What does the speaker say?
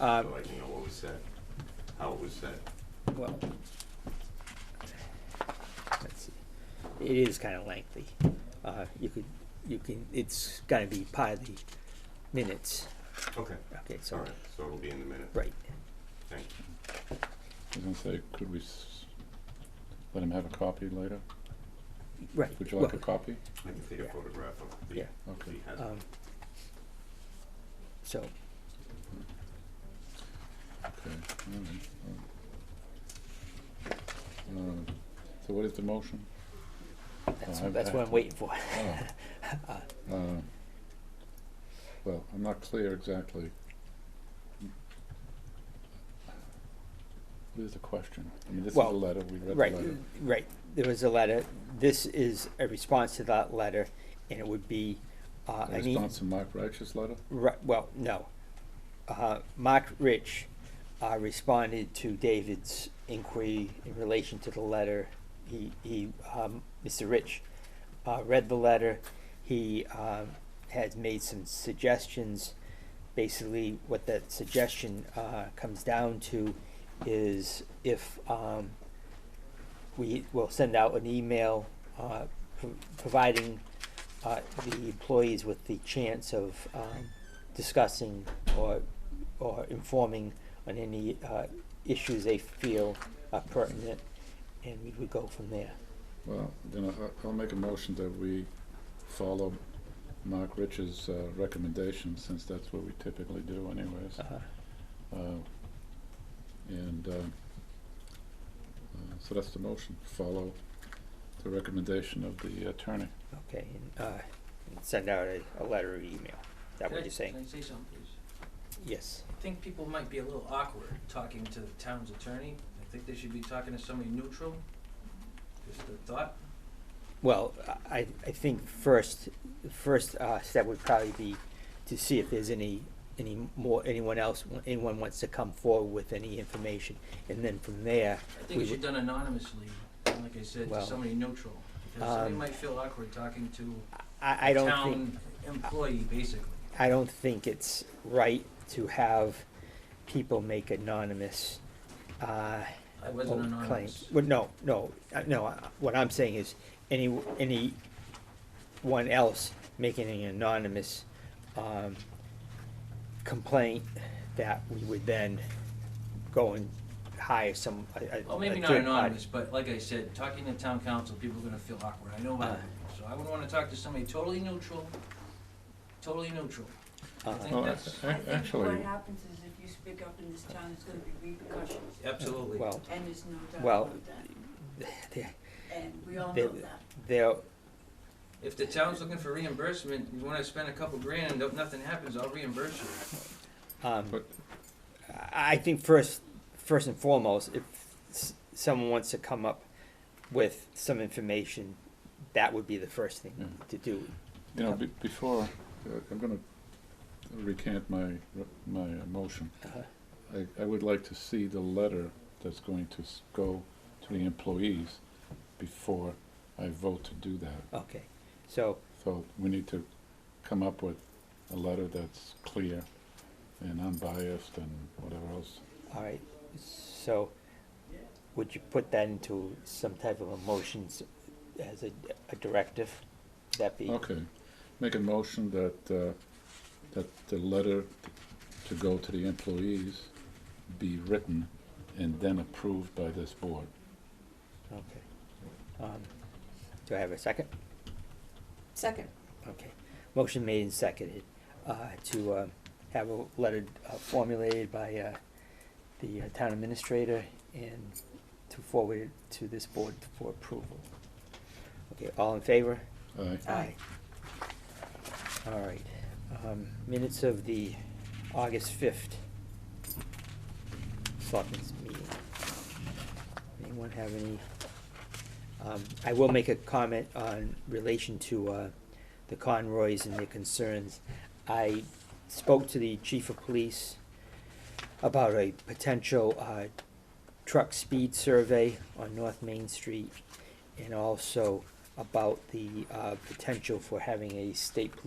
Uh, so I can know what was said, how it was said. well, let's see. It is kind of lengthy. Uh, you could, you can, it's gotta be part of the minutes. Okay. Okay, All so, right, so it'll be in the minute. right. Thank you. I was gonna say, could we s- let him have a copy later? Right. Would you like a Well, copy? I can take a Yeah. photograph of the, Yeah. if Okay. he has it. um, So, Okay, all right, all right. Um, So what is the motion? that's, I've- that's what I'm waiting for. Oh. Uh, Well, I'm not clear exactly. What is the question? I mean, this is a Well, letter, we read the Right, letter. right. There was a letter. This is a response to that letter, and it would be, uh, The I need, response to Mark Reich's letter? Right, well, no. Uh, Mark Rich, uh, responded to David's inquiry in relation to the letter. He, he, um, Mr. Rich, uh, read the letter. He, um, has made some suggestions. Basically, what that suggestion, uh, comes down to is if, um, we will send out an email, uh, pro- providing, uh, the employees with the chance of, um, discussing or, or informing on any, uh, issues they feel are pertinent, and we would go from there. Well, then I- I'll make a motion that we follow Mark Rich's uh, recommendation, since that's what we typically do anyways. Uh, Uh, And uh, uh, so that's the motion, follow the recommendation of the attorney. Okay, and, uh, and send out a, a letter or email, is that what Can I- you're saying? Can I say something, please? Yes, I think people might be a little awkward talking to the town's attorney. I think they should be talking to somebody neutral, just a thought. well, I, I think first, first, uh, step would probably be to see if there's any, any more, anyone else, anyone wants to come forward with any information, and then from there, I We think it should would- be done anonymously, and like I said, to Well, somebody neutral. Because somebody um, might feel awkward talking to I, I a don't think, town employee, basically. I don't think it's right to have people make anonymous, uh, I wasn't old anonymous. claims. Well, no, no, uh, no, uh, what I'm saying is, any, anyone else making an anonymous, um, complaint that we would then go and hire some, a, a. Well, a maybe not third party. anonymous, but like I said, talking to town council, people are gonna feel awkward. I know Uh. that. So I would wanna talk to somebody totally neutral, totally neutral. I Uh, think Well, that's, a- I a- think Actually, What happens is if you speak up in this town, it's gonna be repercussions, absolutely. Well, and there's no doubt Well, about that, there, and we all there- know that. there, If the town's looking for reimbursement, you wanna spend a couple grand and don't- nothing happens, I'll reimburse you. Um, But- I I think first, first and foremost, if s- someone wants to come up with some information, that would be the first Yeah. thing to do. you know, be- before, uh, I'm gonna recant my, re- my uh, motion. Uh, I, I would like to see the letter that's going to s- go to the employees before I vote to do that. Okay, so, So we need to come up with a letter that's clear and unbiased and whatever else. all right, so would you put that into some type of emotions as a, a directive? Would That be, Okay, make a motion that, uh, that the letter to go to the employees be written and then approved by this board. okay. Um, Do I have a second? Second. Okay, motion made and seconded, uh, to, uh, have a letter uh, formulated by, uh, the uh, town administrator and to forward it to this board for approval. Okay, all in favor? Aye. Aye. All right, um, minutes of the August fifth selectmen's meeting. Anyone have any? Um, I will make a comment on relation to, uh, the Conroys and their concerns. I spoke to the chief of police about a potential, uh, truck speed survey on North Main Street and also about the, uh, potential for having a state police